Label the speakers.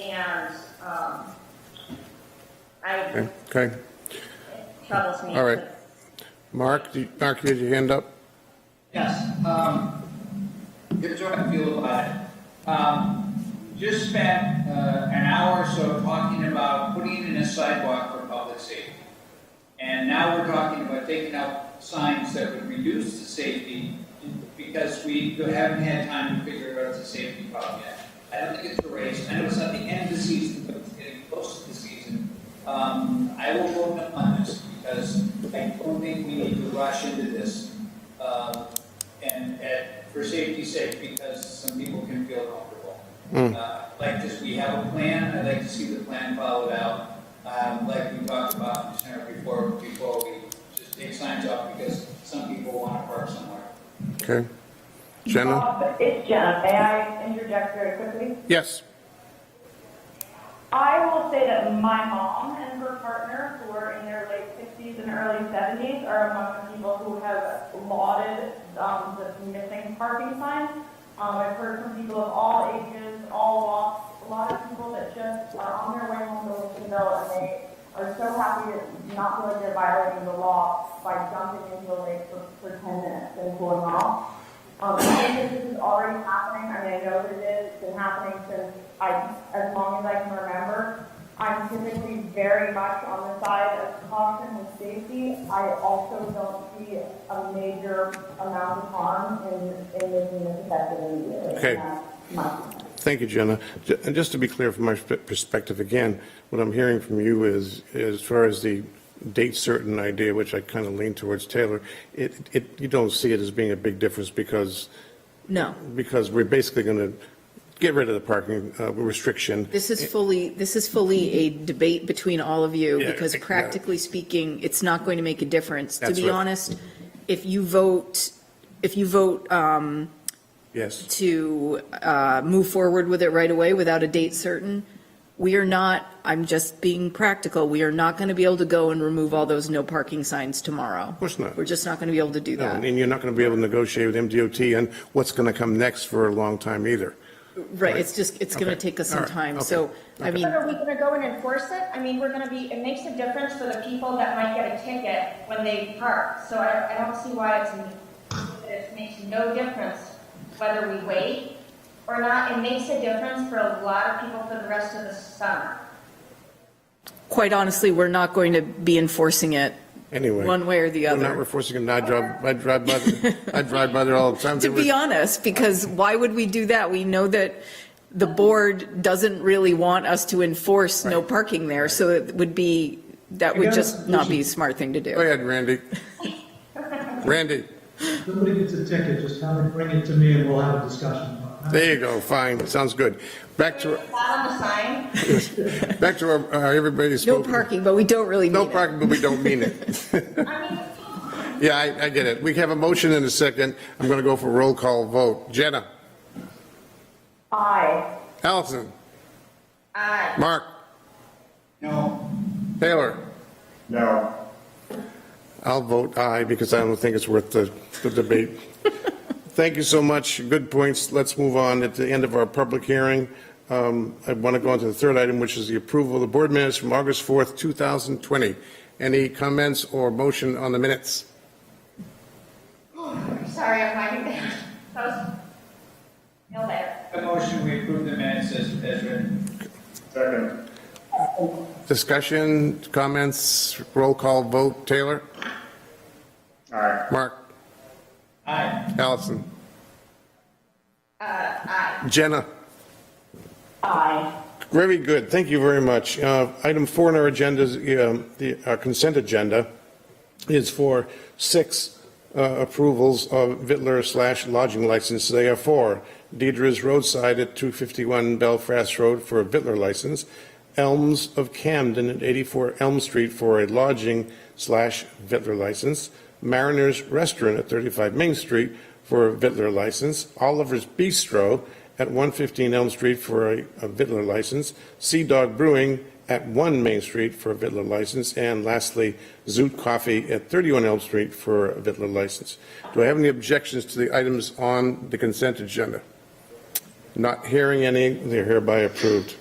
Speaker 1: and, um, I,
Speaker 2: Okay,
Speaker 1: troubles me.
Speaker 2: all right. Mark, do you- Mark, you had your hand up?
Speaker 3: Yes, um, good job, Field Audit. Um, just spent, uh, an hour or so talking about putting in a sidewalk for public safety. And now we're talking about taking out signs that would reduce the safety because we haven't had time to figure out the safety problem yet. I don't think it's a race. I know it's not the end of the season, but it's getting close to the season. Um, I will vote no on this because I don't think we need to rush into this. Um, and, and for safety's sake, because some people can feel comfortable. Uh, Like this, we have a plan, I'd like to see the plan followed out, um, like we talked about in Senator before, before we just take signs off because some people want to park somewhere.
Speaker 2: Okay. Jenna?
Speaker 4: Uh, It's Jenna. May I interject very quickly?
Speaker 2: Yes.
Speaker 4: I will say that my mom and her partner, who are in their late 60s and early 70s, are among the people who have lauded um, the missing parking sign. Um, I've heard from people of all ages, all walks, a lot of people that just are on their way home to Wilsonville and they are so happy to not feel like they're violating the law by jumping into a lake for, for 10 minutes and cooling off. Um, I think this is already happening, I mean, I know that it is, it's been happening since I, as long as I can remember. I'm typically very much on the side of caution and safety. I also don't see a major amount of harm in, in making this effective immediately.
Speaker 2: Okay.
Speaker 4: And that's my concern.
Speaker 2: Thank you, Jenna. J- And just to be clear from my sp- perspective, again, what I'm hearing from you is, as far as the date certain idea, which I kind of lean towards Taylor, it, it, you don't see it as being a big difference because,
Speaker 5: No,
Speaker 2: because we're basically going to get rid of the parking uh, restriction.
Speaker 5: this is fully, this is fully a debate between all of you,
Speaker 2: Yeah,
Speaker 5: because
Speaker 2: yeah.
Speaker 5: practically speaking, it's not going to make a difference. To
Speaker 2: That's
Speaker 5: be
Speaker 2: right.
Speaker 5: honest, if you vote, if you vote um,
Speaker 2: Yes,
Speaker 5: to uh, move forward with it right away without a date certain, we are not, I'm just being practical, we are not going to be able to go and remove all those no parking signs tomorrow. Of
Speaker 2: course not.
Speaker 5: We're just not going to be able to do
Speaker 2: No, and
Speaker 5: that.
Speaker 2: and you're not going to be able to negotiate with MDOT on what's going to come next for a long time either.
Speaker 5: Right, it's just, it's going to
Speaker 2: Okay.
Speaker 5: take us
Speaker 2: All
Speaker 5: some
Speaker 2: right.
Speaker 5: time,
Speaker 2: Okay.
Speaker 5: so, I
Speaker 2: Okay.
Speaker 5: mean.
Speaker 1: But are we gonna go and enforce it? I mean, we're gonna be, it makes a difference for the people that might get a ticket when they park. So I, I don't see why it's, it makes no difference whether we wait or not. It makes a difference for a lot of people for the rest of the summer.
Speaker 5: quite honestly, we're not going to be enforcing it
Speaker 2: Anyway.
Speaker 5: one way or the
Speaker 2: I'm not
Speaker 5: other.
Speaker 2: enforcing it, and I drive, I drive by, the- I drive by there all the time.
Speaker 5: To be honest, because why would we do that? We know that the board doesn't really want us to enforce no parking there, so it would be, that would just not be a smart thing to
Speaker 2: Go
Speaker 5: do.
Speaker 2: ahead, Randy. Randy,
Speaker 6: Somebody gets a ticket, just have it, bring it to me and we'll have a discussion. about it.
Speaker 2: there you go, fine, sounds good. Back to,
Speaker 1: It's not on the sign.
Speaker 2: back to our- our everybody's.
Speaker 5: No
Speaker 2: spoken.
Speaker 5: parking, but we don't really
Speaker 2: No
Speaker 5: mean it.
Speaker 2: parking, but we don't mean it.
Speaker 1: I mean,
Speaker 2: Yeah, I, I get it. We have a motion in a second. I'm going to go for a roll call vote. Jenna,
Speaker 4: Aye.
Speaker 2: Allison,
Speaker 1: I,
Speaker 2: Mark,
Speaker 3: No,
Speaker 2: Taylor.
Speaker 7: No.
Speaker 2: I'll vote aye because I don't think it's worth the, the debate. Thank you so much. Good points. Let's move on. At the end of our public hearing, um, I want to go on to the third item, which is the approval of the board minutes from August 4th, 2020. Any comments or motion on the minutes?
Speaker 1: sorry, I'm hiding there. That was, no there.
Speaker 3: a motion, we approve the minutes as, as written.
Speaker 7: Second.
Speaker 2: Discussion, comments, roll call vote. Taylor?
Speaker 7: Aye.
Speaker 2: Mark?
Speaker 3: Aye,
Speaker 2: Allison? Jenna?
Speaker 4: Aye.
Speaker 2: Very good. Thank you very much. Uh, Item four on our agenda is um, the our consent agenda is for six uh, approvals of Vittler slash lodging license. They are for Deidre's Roadside at 251 Belfast Road for a Vittler license, Elms of Camden at 84 Elm Street for a lodging slash Vittler license, Mariners Restaurant at 35 Main Street for a Vittler license, Oliver's Bistro at 115 Elm Street for a a Vittler license, Sea Dog Brewing at 1 Main Street for a Vittler license, and lastly, Zoot Coffee at 31 Elm Street for a Vittler license. Do I have any objections to the items on the consent agenda? Not hearing any, they're hereby approved.